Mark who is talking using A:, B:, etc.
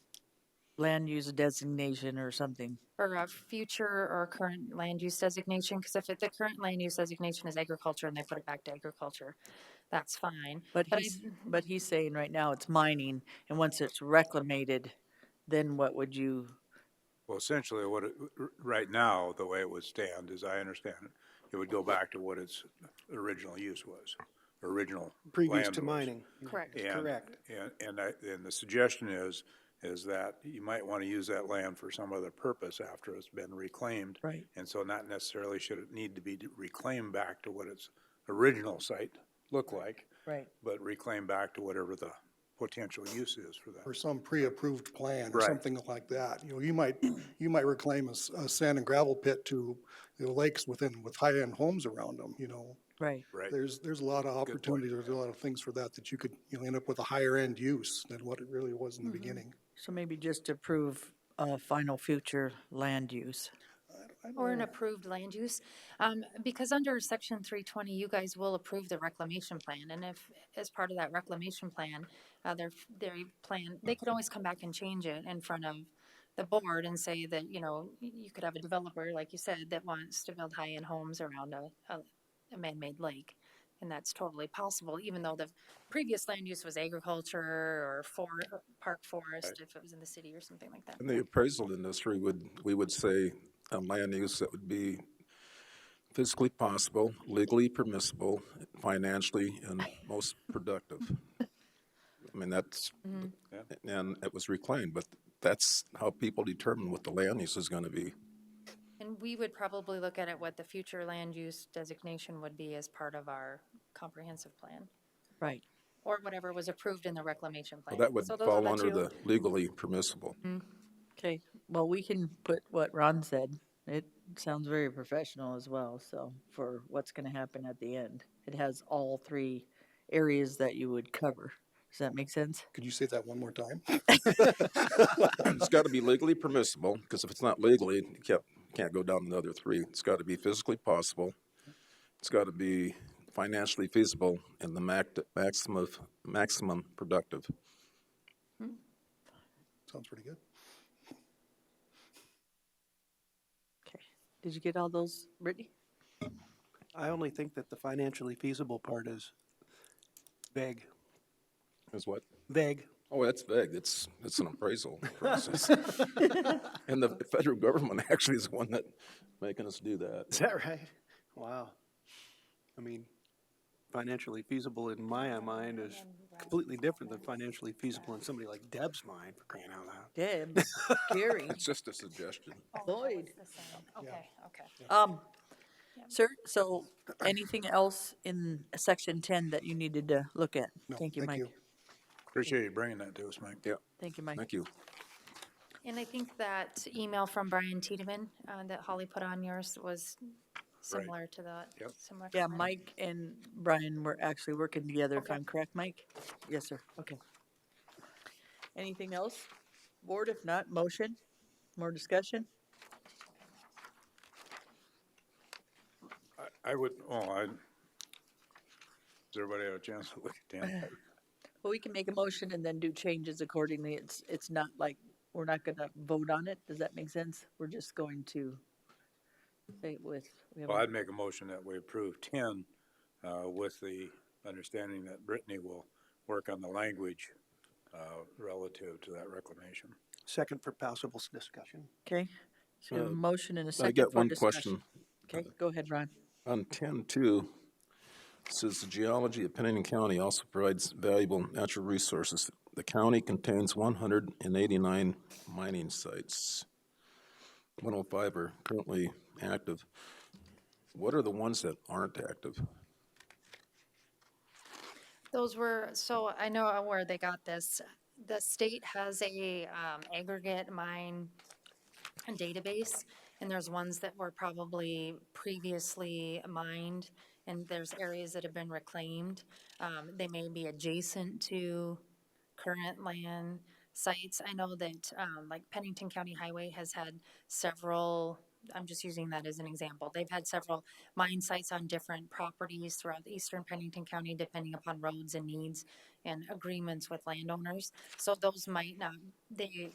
A: land use designation or something.
B: or a future or current land use designation, because if it- the current land use designation is agriculture and they put it back to agriculture, that's fine.
A: But mm-hmm.
B: But I-
A: he's, but he's saying right now it's mining, and once it's reclamated, then what would you,
C: Well, essentially, what, it- r- right now, the way it would stand, as I understand it, it would go back to what its original use was, original
D: previous
C: land
D: to
C: was.
D: mining.
B: Correct.
D: That's
C: And-
D: Correct.
C: And, and I, and the suggestion is, is that you might want to use that land for some other purpose after it's been reclaimed.
A: Right.
C: And so not necessarily should it need to be reclaimed back to what its original site looked like,
A: right?
C: but reclaimed back to whatever the potential use is for
E: or
C: that.
E: some pre-approved plan or
C: Right.
E: something like that. You know, you might, you might reclaim a, s- a sand and gravel pit to, you know, lakes within, with high-end homes around them, you know.
A: Right.
C: Right,
E: There's, there's a lot of
C: point.
E: opportunities, there's a lot of things for that, that you could, you know, end up with a higher-end use than what it really was
A: Mm-hmm.
E: in the beginning.
A: So maybe just approve, uh, final future land use.
E: I don't
B: Or an
E: know.
B: approved land use, um, because under section three twenty, you guys will approve the reclamation plan, and if, as part of that reclamation plan, uh, their, their plan, they could always come back and change it in front of the board and say that, you know, y- you could have a developer, like you said, that wants to build high-end homes around a, a, a man-made lake. And that's totally possible, even though the previous land use was agriculture or for, park forest, if it was in the city or something like that.
F: In the appraisal industry, would, we would say a land use that would be physically possible, legally permissible, financially, and most productive. I mean, that's,
B: Mm-hmm.
F: and it was reclaimed, but that's how people determine what the land use is gonna be.
B: And we would probably look at it what the future land use designation would be as part of our comprehensive plan,
A: Right.
B: or whatever was approved in the reclamation
F: Well,
B: plan.
F: Oh, that would
B: So those are
F: fall under
B: two-
F: the legally permissible.
A: Okay, well, we can put what Ron said. It sounds very professional as well, so for what's gonna happen at the end. It has all three areas that you would cover. Does that make sense?
E: Could you say that one more time?
F: It's gotta be legally permissible, because if it's not legally, you can't, can't go down another three. It's gotta be physically possible. It's gotta be financially feasible and the mac, maximum, maximum productive.
E: Sounds pretty good.
A: Okay. Did you get all those, Brittany?
D: I only think that the financially feasible part is vague,
F: Is what?
D: vague.
F: Oh, that's vague. It's, it's an appraisal process. And the federal government actually is the one that making us do that.
D: Is that right? Wow. I mean, financially feasible in my mind is completely different than financially feasible in somebody like Deb's mind, for crying out loud.
A: Deb, Gary,
F: It's just a suggestion.
A: Lloyd.
B: The same. Okay, okay.
A: Um, sir, so anything else in section ten that you needed to look at?
E: No,
A: Thank you,
E: thank
A: Mike.
E: you.
C: appreciate you bringing that to us, Mike.
F: Yeah,
A: Thank you, Mike.
F: thank you.
B: And I think that email from Brian Tiedemann, uh, that Holly put on yours was similar to that.
C: Yep.
B: similar to
A: Yeah,
B: mine.
A: Mike and Brian were actually working together, if
B: Okay.
A: I'm correct, Mike? Yes, sir, okay. Anything else? Board, if not, motion? More discussion?
C: I would, oh, I, does everybody have a chance to look at Dan?
A: Well, we can make a motion and then do changes accordingly. It's, it's not like, we're not gonna vote on it. Does that make sense? We're just going to say it with, we have
C: Well,
A: a-
C: I'd make a motion that we approve ten, uh, with the understanding that Brittany will work on the language, uh, relative to that reclamation.
D: Second for possible s- discussion.
A: okay? So we have a
F: Uh,
A: motion and a
F: I
A: second
F: got
A: for
F: one
A: discussion.
F: question.
A: Okay, go ahead, Ron.
F: On ten two, says the geology of Pennington County also provides valuable natural resources. The county contains one hundred and eighty-nine mining sites. One oh five are currently active. What are the ones that aren't active?
B: Those were, so I know where they got this. The state has a um, aggregate mine database, and there's ones that were probably previously mined, and there's areas that have been reclaimed. Um, They may be adjacent to current land sites. I know that, um, like Pennington County Highway has had several, I'm just using that as an example. They've had several mine sites on different properties throughout eastern Pennington County, depending upon roads and needs and agreements with landowners. So those might not, they,